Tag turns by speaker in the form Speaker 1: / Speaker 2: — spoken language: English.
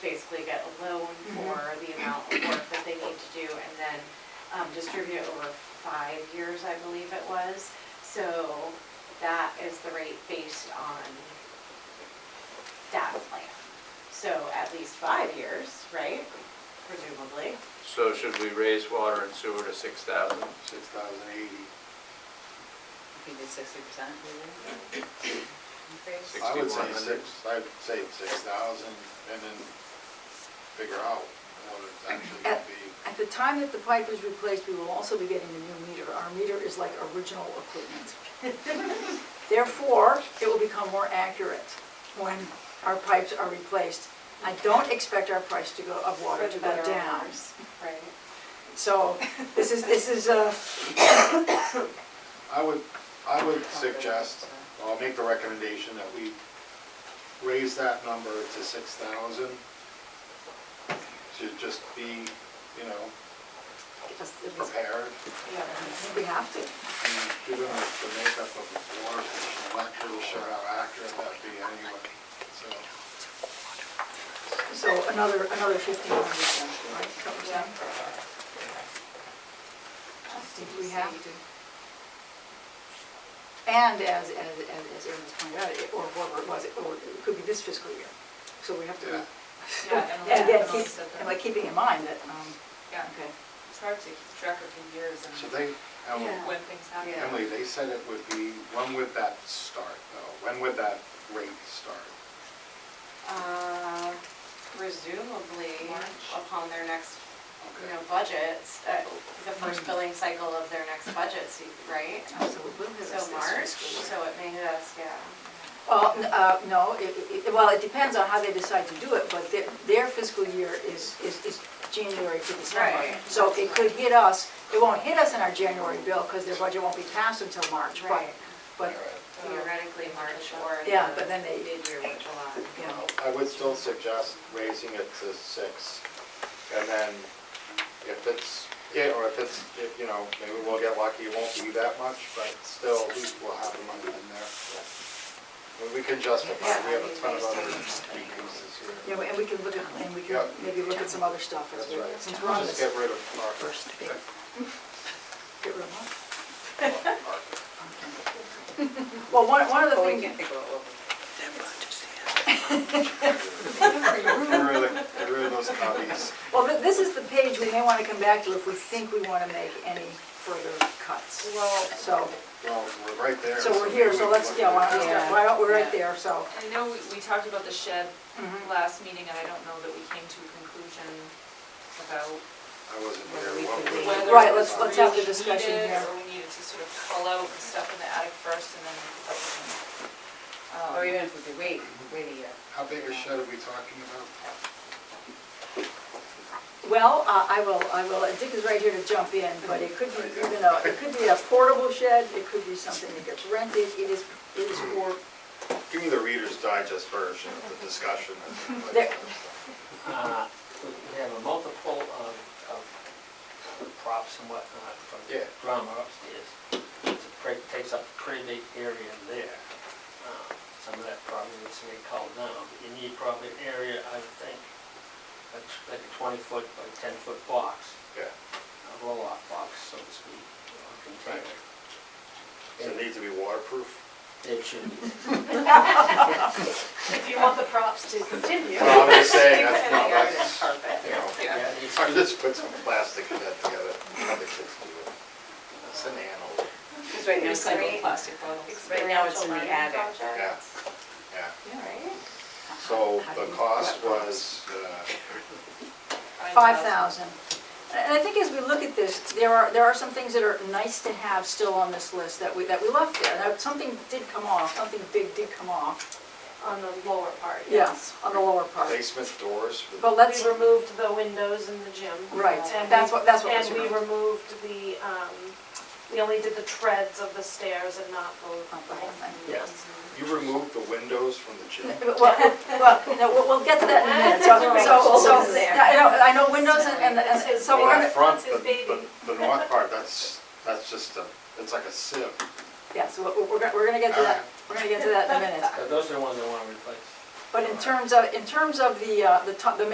Speaker 1: basically get a loan
Speaker 2: Mm-hmm.
Speaker 1: for the amount of work that they need to do and then um, distribute it over five years, I believe it was. So that is the rate based on that plan. So at least five years, right? Presumably.
Speaker 3: So should we raise water and sewer to six thousand?
Speaker 4: six thousand eighty.
Speaker 5: We did sixty percent.
Speaker 4: I would say
Speaker 3: 6,100.
Speaker 4: six, I'd say six thousand and then figure out what it's actually gonna be.
Speaker 2: At the time that the pipe is replaced, we will also be getting a new meter. Our meter is like original equipment. Therefore, it will become more accurate when our pipes are replaced. I don't expect our price to go, of water to go down.
Speaker 1: Right.
Speaker 2: So this is, this is uh, a,
Speaker 4: I would, I would suggest, I'll make the recommendation that we raise that number to six thousand to just be, you know,
Speaker 2: just- it is-
Speaker 4: prepared.
Speaker 2: yeah, we have to.
Speaker 4: And Given the the makeup of the water, I'm not really sure how accurate that'd be anyway, so.
Speaker 2: So another, another fifteen hundred then, right, covers that. Did we have to? And as, as, as as Erin was pointing out, it- or whatever it was, it- or it could be this fiscal year. So we have to be.
Speaker 4: Yeah.
Speaker 5: Yeah, and
Speaker 2: And again,
Speaker 5: like-
Speaker 2: keep, and like keeping in mind that, um,
Speaker 5: Yeah,
Speaker 2: okay.
Speaker 5: it's hard to keep track of the years
Speaker 4: So
Speaker 5: and
Speaker 4: they, Emily-
Speaker 1: Yeah.
Speaker 5: when things happen.
Speaker 1: Yeah.
Speaker 4: Emily, they said it would be, when would that start though? When would that rate start?
Speaker 1: Uh, Presumably upon their next, you
Speaker 4: Okay.
Speaker 1: know, budgets, uh, the first billing cycle of their next budget, se- right?
Speaker 2: So we will have this
Speaker 1: So
Speaker 2: this
Speaker 1: March,
Speaker 2: fiscal year.
Speaker 1: so it may have, us, yeah.
Speaker 2: Well, n- uh, no, it, it, well, it depends on how they decide to do it, but their, their fiscal year is, is, is January to December.
Speaker 1: Right.
Speaker 2: So it could hit us, it won't hit us in our January bill, because their budget won't be passed until March, but,
Speaker 1: Right.
Speaker 4: Uh,
Speaker 2: but,
Speaker 1: Theoretically, March or.
Speaker 2: Uh, Yeah,
Speaker 1: the
Speaker 2: but then they-
Speaker 1: Mid-year with July.
Speaker 2: you know,
Speaker 4: I would still suggest raising it to six. And then if it's, yeah, or if it's, if, you know, maybe we'll get lucky, it won't be that much, but still, we will have the money in there. And We can justify, it. we have a ton of other increases
Speaker 2: you
Speaker 4: here.
Speaker 2: know, and we can look at, and we can
Speaker 4: Yeah.
Speaker 2: maybe look at some other stuff as
Speaker 4: That's
Speaker 2: well,
Speaker 4: right.
Speaker 2: since we're on
Speaker 4: Just get
Speaker 2: this.
Speaker 4: rid of Parker.
Speaker 2: First big- Get rid of
Speaker 4: Parker.
Speaker 2: them. Well, one, one of the
Speaker 5: But we
Speaker 2: things.
Speaker 5: can think about what we
Speaker 4: Really, really those copies.
Speaker 2: Well, th- this is the page we may want to come back to if we think we want to make any further cuts.
Speaker 5: Well-
Speaker 2: So,
Speaker 4: Well, we're right there.
Speaker 2: so we're here, so let's, yeah, why don't we,
Speaker 5: Yeah.
Speaker 2: why don't, we're right
Speaker 5: Yeah.
Speaker 2: there, so.
Speaker 5: I know we, we talked about the shed
Speaker 2: Mhm.
Speaker 6: Mm-hmm.
Speaker 5: last meeting, and I don't know that we came to a conclusion about
Speaker 4: I wasn't
Speaker 5: whether we
Speaker 4: here. What
Speaker 5: could leave.
Speaker 4: we-
Speaker 5: whether
Speaker 2: Right,
Speaker 5: it
Speaker 2: let's-
Speaker 5: was
Speaker 2: let's have the
Speaker 5: really
Speaker 2: discussion
Speaker 5: needed,
Speaker 2: here.
Speaker 5: Or we needed to sort of pull out the stuff in the attic first and then. um,
Speaker 7: Or even if we could wait, wait a year.
Speaker 4: How big a shed are we talking about?
Speaker 2: Well, uh, I will, I will, and Dick is right here to jump in, but it could be even a, it could be a portable shed, it could be something that gets rented, it is, it is for,
Speaker 4: Give me the Reader's Digest version of the discussion.
Speaker 2: There.
Speaker 8: Uh, We have a multiple of, of props and whatnot from the
Speaker 4: Yeah.
Speaker 8: drama upstairs. It's a pre- Takes up a pretty big area there. Uh, Some of that probably needs to be called down, but you need probably an area, I would think, that's like a twenty foot by ten foot box,
Speaker 4: Yeah,
Speaker 8: a roll off box, so to speak, or container.
Speaker 4: does it need to be waterproof?
Speaker 8: It should be.
Speaker 1: If you want the props to continue.
Speaker 4: Well, I'm just saying,
Speaker 1: You
Speaker 4: that's
Speaker 1: put it in
Speaker 4: not,
Speaker 1: the yard, it's
Speaker 4: that's,
Speaker 1: perfect.
Speaker 4: you know,
Speaker 5: Yeah.
Speaker 8: Yeah, it needs to
Speaker 4: I
Speaker 8: be-
Speaker 4: just put some plastic in that together, let the kids do it. It's an animal,
Speaker 7: Because right now, it's like
Speaker 1: Recycled
Speaker 7: plastic bottles. Right now, it's in the
Speaker 1: Experiential
Speaker 7: attic.
Speaker 1: learning
Speaker 4: yeah,
Speaker 1: projects,
Speaker 4: yeah.
Speaker 1: Right?
Speaker 4: So the cost was, uh,
Speaker 2: Five thousand. And I think as we look at this, there are, there are some things that are nice to have still on this list that we, that we left there. Now, something did come off, something big did come off.
Speaker 1: On the lower part,
Speaker 2: Yes, on the lower part.
Speaker 4: uh, basement doors for
Speaker 2: But
Speaker 4: the
Speaker 2: let's,
Speaker 6: We removed the windows in the gym.
Speaker 2: right,
Speaker 6: And
Speaker 2: that's
Speaker 6: we-
Speaker 2: what, that's what was
Speaker 6: And we
Speaker 2: removed.
Speaker 6: removed the, um, we only did the treads of the stairs and not the.
Speaker 2: Not Oh, the whole thing.
Speaker 8: Yes.
Speaker 4: You removed the windows from the gym?
Speaker 2: Well, well, no, we'll- we'll get to that in a minute. So, so, so, yeah, I know, I know windows and, and- and, so
Speaker 4: Well,
Speaker 2: we're
Speaker 4: that
Speaker 2: gonna,
Speaker 4: front,
Speaker 6: that's his
Speaker 4: the-
Speaker 6: baby.
Speaker 4: the, the north part, that's, that's just a, it's like a sieve.
Speaker 2: yeah, so we're, we're gonna, we're gonna get to that, we're gonna get to that in a minute.
Speaker 8: Those are the ones I want to replace.
Speaker 2: But in terms of, in terms of the, uh, the, to- the